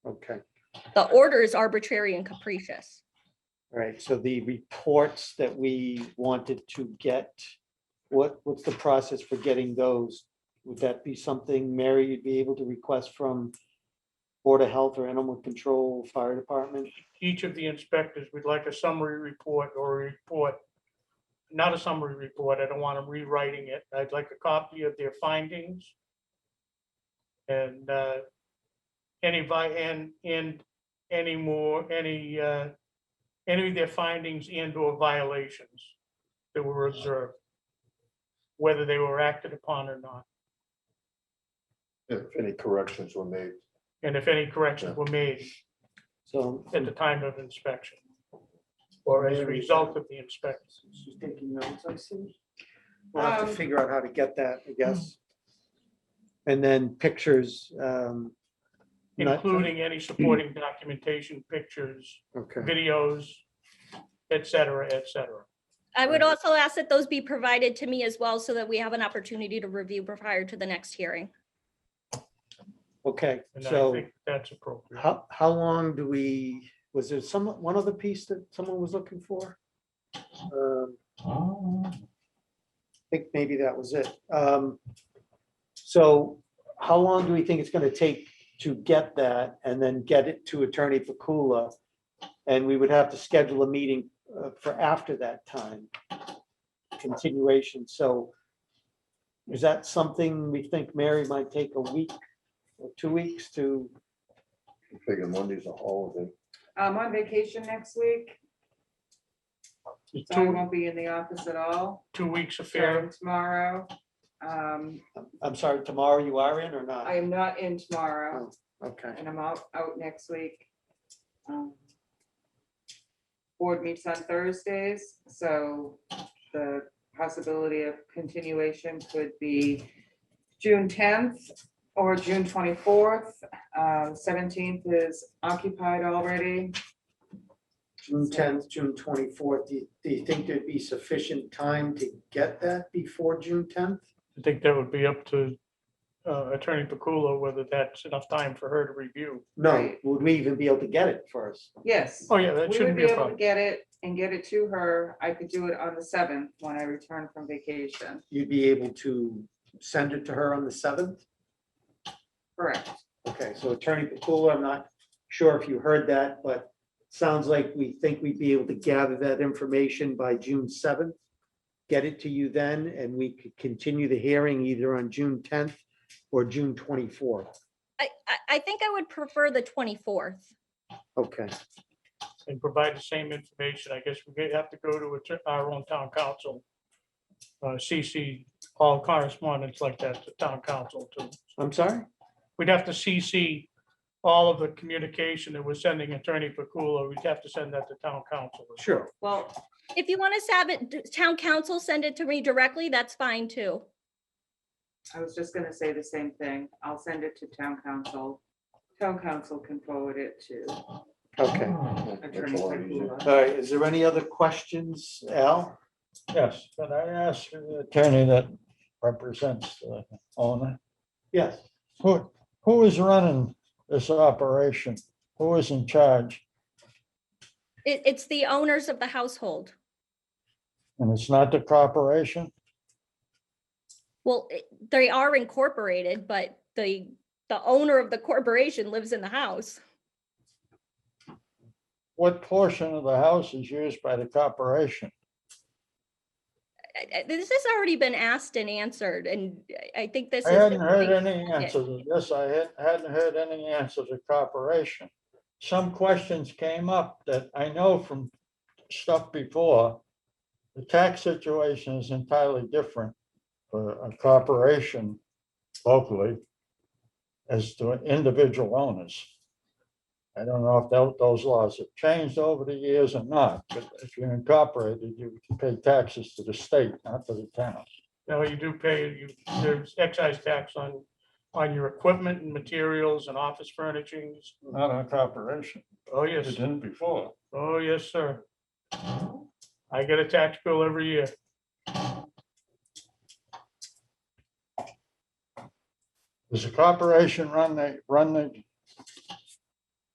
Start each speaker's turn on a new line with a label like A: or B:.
A: Okay,
B: The order is arbitrary and capricious.
A: all right. So the reports that we wanted to get, what, what's the process for getting those? Would that be something, Mary, you'd be able to request from Board of Health or Animal Control, Fire Department?
C: each of the inspectors, we'd like a summary report or a report, not a summary report, I don't want them rewriting it. I'd like a copy of their findings. And uh, any, vi- and, and any more, any, uh, any of their findings and or violations that were observed, whether they were acted upon or not,
D: If any corrections were made.
C: and if any corrections were made
A: So
C: at the time of inspection or as a result of the inspection.
A: she's taking notes, I see. We'll have to
E: Um,
A: figure out how to get that, I guess. And then pictures. um, not-
C: including any supporting documentation, pictures,
A: Okay.
C: videos, et cetera, et cetera.
B: I would
A: Right.
B: also ask that those be provided to me as well so that we have an opportunity to review prior to the next hearing.
A: Okay,
C: And I
A: so.
C: think that's appropriate.
A: How, how long do we, was there some, one other piece that someone was looking for? Um, I think maybe that was it. Um, So how long do we think it's gonna take to get that and then get it to Attorney Pakula? And we would have to schedule a meeting uh, for after that time, continuation, so is that something we think Mary might take a week or two weeks to
D: Figure Monday's a holiday.
E: I'm on vacation next week,
C: The
E: so I
C: Two,
E: won't be in the office at all,
C: two weeks of
E: starting
C: fair,
E: tomorrow. Um,
A: I'm sorry, tomorrow you are in or not?
E: I am not in tomorrow,
A: Okay,
E: and I'm out, out next week. Um, Board meets on Thursdays, so the possibility of continuation could be June tenth or June twenty-fourth. Um, Seventeenth is occupied already.
A: June tenth, June twenty-fourth, do you, do you think there'd be sufficient time to get that before June tenth?
C: I think that would be up to uh, Attorney Pakula, whether that's enough time for her to review.
A: No,
E: Right.
A: would we even be able to get it first?
E: Yes.
C: Oh, yeah, that
E: We would
C: shouldn't
E: be
C: be a
E: able to
C: problem.
E: get it and get it to her. I could do it on the seventh when I return from vacation.
A: You'd be able to send it to her on the seventh?
E: Correct.
A: Okay, so Attorney Pakula, I'm not sure if you heard that, but sounds like we think we'd be able to gather that information by June seventh. Get it to you then, and we could continue the hearing either on June tenth or June twenty-fourth.
B: I, I, I think I would prefer the 24th.
A: Okay.
C: And provide the same information. I guess we have to go to a- our own town council. uh, CC all correspondence like that to town council too.
A: I'm sorry?
C: We'd have to CC all of the communication that we're sending Attorney Pakula. We'd have to send that to town council.
A: Sure.
E: Well,
B: If you want us to have it, d- town council send it to me directly, that's fine too.
E: I was just gonna say the same thing. I'll send it to town council. Town council can forward it to
A: Okay.
E: attorney. Pakula.
A: All right, is there any other questions, Al?
F: Yes, but I asked the attorney that represents the owner,
A: Yes.
F: who, who is running this operation? Who is in charge?
B: It, it's the owners of the household.
F: And it's not the corporation?
B: Well, it- they are incorporated, but the, the owner of the corporation lives in the house.
F: What portion of the house is used by the corporation?
B: I- I- This has already been asked and answered, and I- I think this
F: I
B: is.
F: hadn't
B: the
F: heard
B: only-
F: any answer to this. I hadn't- hadn't heard any answer to corporation. Some questions came up that I know from stuff before. The tax situation is entirely different for a corporation locally as to individual owners. I don't know if tho- those laws have changed over the years or not, but if you're incorporated, you pay taxes to the state, not to the town.
C: Now, you do pay, you, there's excise tax on, on your equipment and materials and office furnishings.
F: Not a corporation.
C: Oh,
F: It
C: yes,
F: didn't before.
C: oh, yes, sir. I get a tax bill every year.
F: Does the corporation run the, run the